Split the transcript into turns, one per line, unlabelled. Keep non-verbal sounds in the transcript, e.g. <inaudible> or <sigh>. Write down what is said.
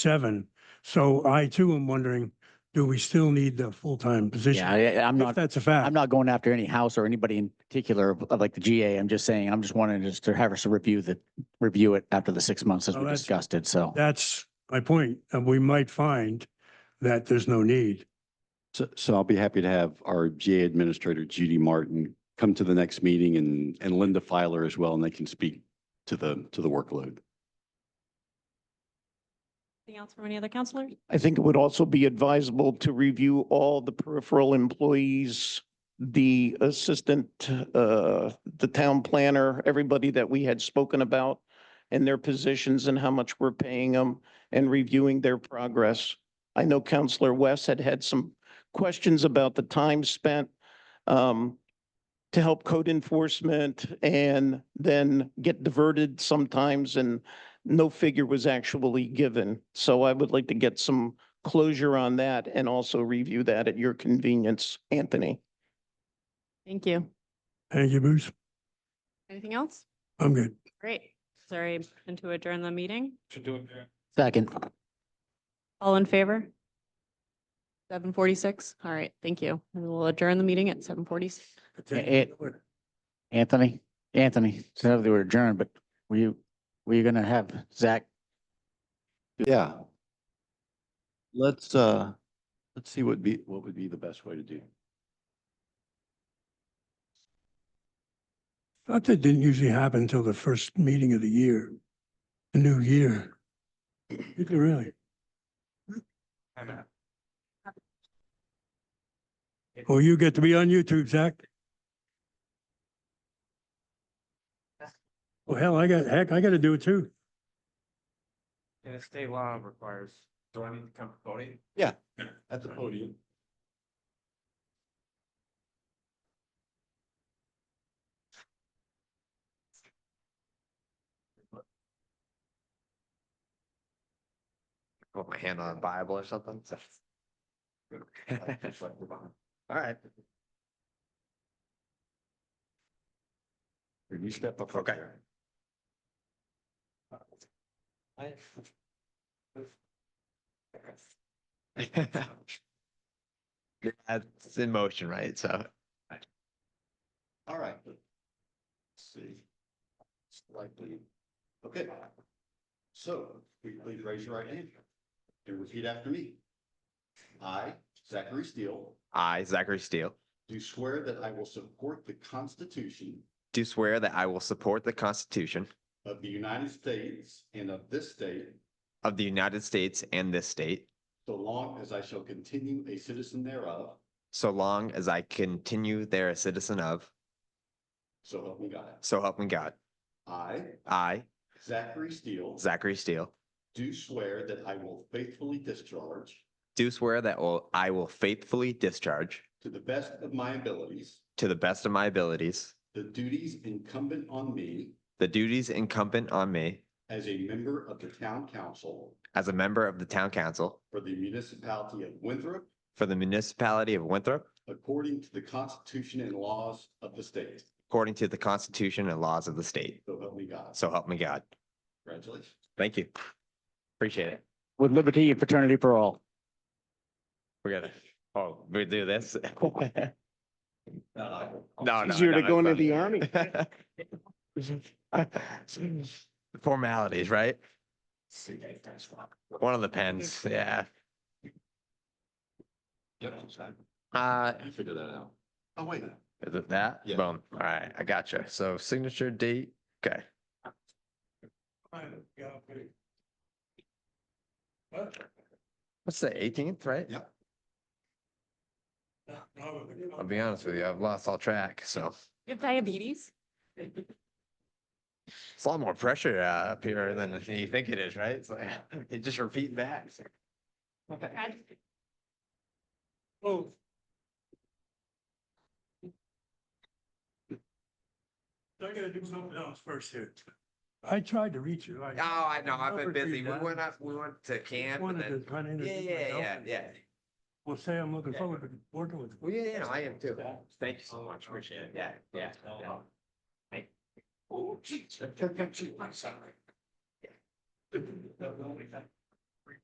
seven. So I too am wondering, do we still need the full-time position?
Yeah, I, I'm
If
not,
that's a fact.
I'm not going after any house or anybody in particular of- of like the GA. I'm just saying, I'm just wanting just to have us review the, review it after the six months as
Oh,
we
that's-
discussed it. So
That's my point. And we might find that there's no need.
So, so I'll be happy to have our GA Administrator Judy Martin come to the next meeting and, and Linda Filer as well, and they can speak to the, to the workload.
Anything else from any other counselors?
I think it would also be advisable to review all the peripheral employees, the assistant, uh, the town planner, everybody that we had spoken about and their positions and how much we're paying them and reviewing their progress. I know Counselor West had had some questions about the time spent um, to help code enforcement and then get diverted sometimes and no figure was actually given. So I would like to get some closure on that and also review that at your convenience, Anthony.
Thank you.
Thank you, Bruce.
Anything else?
I'm good.
Great. Sorry, and to adjourn the meeting.
second.
All in favor? Seven forty-six. All right, thank you. And we'll adjourn the meeting at seven forty.
it- Anthony, Anthony, said they were adjourned, but were you, were you gonna have Zach?
Yeah. Let's, uh, let's see what be, what would be the best way to do.
Thought that didn't usually happen until the first meeting of the year, the new year. Did it really? Well, you get to be on YouTube, Zach. Well, hell, I got, heck, I gotta do it too.
And the state law requires, do I need to come to the podium?
Yeah, at the podium.
Put my hand on a Bible or something? <laughs> All right. You step up. Okay. <laughs> That's in motion, right? So.
All right. See. Slightly. Okay. So, will you please raise your right hand and repeat after me. I, Zachary Steele,
I, Zachary Steele,
do swear that I will support the Constitution
do swear that I will support the Constitution
of the United States and of this state,
of the United States and this state,
so long as I shall continue a citizen thereof,
so long as I continue there a citizen of,
so help me God.
so help me God.
I,
I,
Zachary Steele,
Zachary Steele,
do swear that I will faithfully discharge,
do swear that will- I will faithfully discharge,
to the best of my abilities,
to the best of my abilities,
the duties incumbent on me
the duties incumbent on me
as a member of the Town Council
as a member of the Town Council
for the municipality of Winthrop,
for the municipality of Winthrop,
according to the Constitution and laws of the state,
according to the Constitution and laws of the state.
so help me God.
So help me God.
Congratulations.
Thank you. Appreciate it.
With liberty and fraternity for all.
We're gonna, oh, we
<laughs>
do this? No, no.
Easier to
no,
go
it's
into
not.
the army.
<laughs> Formalities, right? One of the pens, yeah. Uh,
I figured that out. Oh, wait.
is it that?
Yeah.
Boom. All right, I gotcha. So signature date, okay.
What?
What's the eighteenth, right?
Yeah.
I'll be honest with you, I've lost all track, so
You have diabetes?
it's a lot more pressure uh, up here than you think it is, right? It's like, <laughs> you just repeat back.
Oh, I gotta do something else first here. I tried to reach you.
Oh, I know, I've been busy. We went up, we went to camp and
Wanted to
then,
kind of
yeah,
introduce
yeah, yeah,
myself.
yeah.
Well, say I'm looking
Yeah.
forward to working with. you.
Well, yeah, yeah, I am too. Thank you so much. Appreciate it. Yeah, yeah. yeah. Thank- Oh, geez. I'm sorry. Yeah.